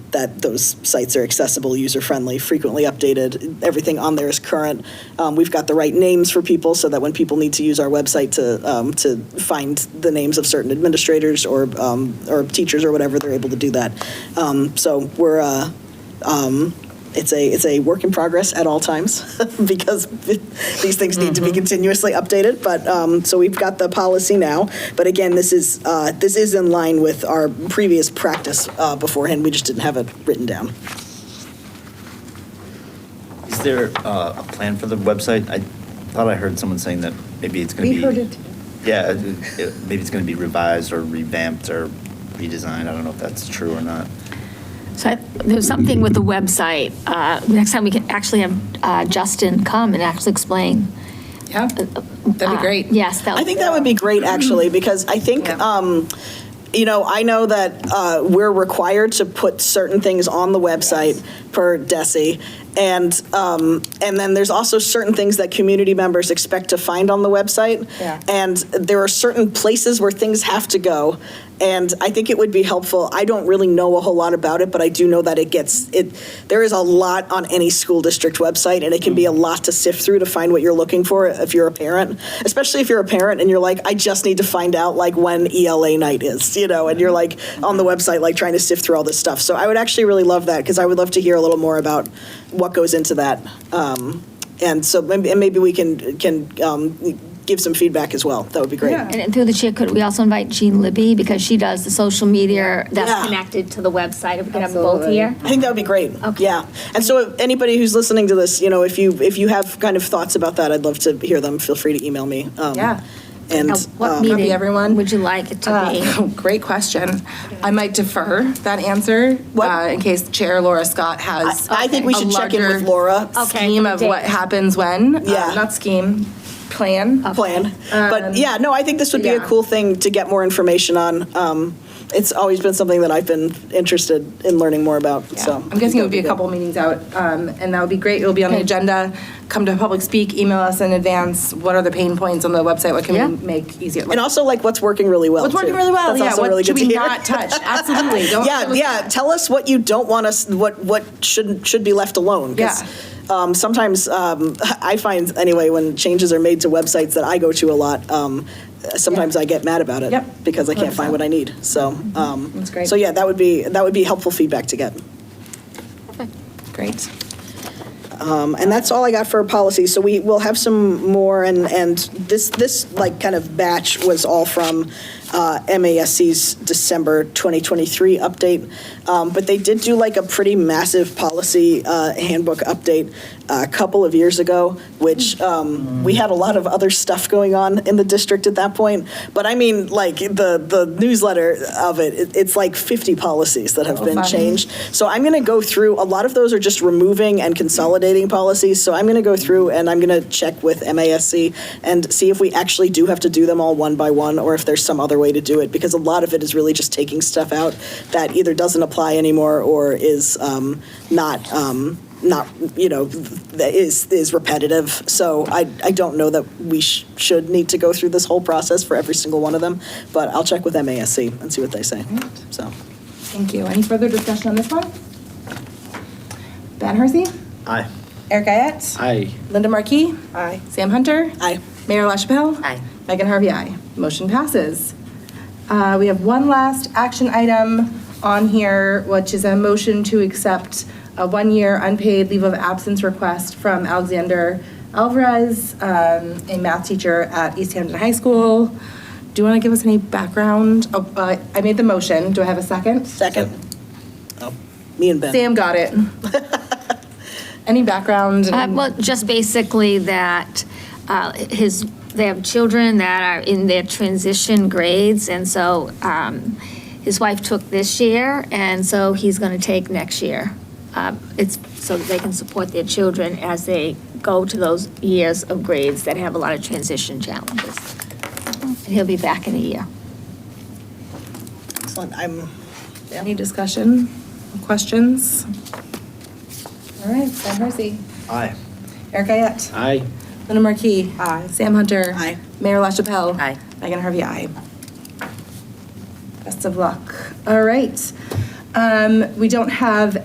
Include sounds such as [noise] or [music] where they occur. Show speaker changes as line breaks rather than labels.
that those sites are accessible, user-friendly, frequently updated. Everything on there is current. Um, We've got the right names for people so that when people need to use our website to, um, to find the names of certain administrators or, um, or teachers or whatever, they're able to do that. Um, So we're, uh, it's a it's a work in progress at all times [laughs] because these things need to be continuously updated. But um, so we've got the policy now. But again, this is uh, this is in line with our previous practice uh, beforehand. We just didn't have it written down.
Is there uh, a plan for the website? I thought I heard someone saying that maybe it's going to
We
be.
heard it.
Yeah, it- it- maybe it's going to be revised or revamped or redesigned. I don't know if that's true or not.
So I- there's something with the website. Uh, Next time, we can actually have uh, Justin come and actually explain.
Yeah, that'd be
Uh,
great.
Yes, that
I think that would be great, actually, because I think,
Yeah.
um, you know, I know that uh, we're required to put certain things on the website per DESI. And, um, and then there's also certain things that community members expect to find on the website.
Yeah.
And there are certain places where things have to go. And I think it would be helpful. I don't really know a whole lot about it, but I do know that it gets, it, there is a lot on any school district website, and it can be a lot to sift through to find what you're looking for if you're a parent, especially if you're a parent and you're like, I just need to find out like when ELA night is, you know, and you're like on the website, like trying to sift through all this stuff. So I would actually really love that, because I would love to hear a little more about what goes into that. Um, And so, maybe- and maybe we can, can um, give some feedback as well. That would be great.
Yeah.
And through the chair, could we also invite Jean Libby because she does the social media
Yeah.
that's connected to the website? If we could have them both
Absolutely.
here.
I think that would be great.
Okay.
Yeah. And so if anybody who's listening to this, you know, if you, if you have kind of thoughts about that, I'd love to hear them. Feel free to email me. Um,
Yeah.
And,
Now, What
um,
meeting
everyone.
would you like it to be?
Uh, [laughs] Great question. I might defer that answer
What?
uh, in case Chair Laura Scott has.
I think we
a
should check in with
larger
Laura.
Okay.
Scheme of what
Date.
happens when. Uh,
Yeah.
Not scheme, plan.
plan. But yeah, no, I think this would be a
um, yeah.
cool thing to get more information on. Um, It's always been something that I've been interested in learning more about,
Yeah.
so.
I'm guessing it would be a couple meetings out, um, and that would be great. It'll be on the
Okay.
agenda. Come to public speak, email us in advance. What are the pain points on the website? What
Yeah.
can we make easier?
And also like what's working really well.
What's working
too.
really well?
That's
Yeah,
also really
what should
good to
we
hear. [laughs]
not touch? Absolutely. Don't let
Yeah,
us-
yeah. Tell us what you don't want us. What what should should be left alone? 'cause,
Yeah.
Um, sometimes um, I find anyway when changes are made to websites that I go to a lot. Um, sometimes I get mad about it
Yep.
because I can't find
100%.
what I need. So um,
That's great.
So yeah, that would be that would be helpful feedback to get.
Great.
Um, and that's all I got for policy. So we will have some more, and, and this, this like kind of batch was all from uh, MASC's December 2023 update. Um, But they did do like a pretty massive policy uh, handbook update uh, a couple of years ago, which um, we had a lot of other stuff going on in the district at that point. But I mean, like the, the newsletter of it, it, it's like 50 policies that have been
fun.
changed changed. So I'm going to go through, a lot of those are just removing and consolidating policies. So I'm going to go through and I'm going to check with MASC and see if we actually do have to do them all one by one or if there's some other way to do it because a lot of it is really just taking stuff out that either doesn't apply anymore or is um, not. Um, not you know that is is repetitive so i i don't know that we sh- should need to go through this whole process for every single one of them but i'll check with masc and see what they say so
Thank you. Any further discussion on this one? Ben Hersey?
Aye.
Eric Ayette?
Aye.
Linda Markey? Aye. Sam Hunter?
Aye.
Mayor LaChapelle? Aye. Megan Harvey, aye. Motion passes. Uh, We have one last action item on here, which is a motion to accept a one-year unpaid leave of absence request from Alexander Alvarez, um, a math teacher at East Hampton High School. Do you want to give us any background? Oh, uh, I made the motion. Do I have a second?
Second. Oh, Me and Ben.
Sam got it. Any background?
Uh, Well, just basically that uh, his, they have children that are in their transition grades, and so um, his wife took this year, and so he's going to take next year. Uh, It's so that they can support their children as they go to those years of grades that have a lot of transition challenges. And he'll be back in a year.
Excellent. I'm,
Any discussion, questions? All right, Ben Hersey.
Aye.
Eric Ayette.
Aye.
Linda Markey. Aye. Sam Hunter.
Aye.
Mayor LaChapelle.
Aye.
Megan Harvey, aye. Best of luck. All right. Um, We don't have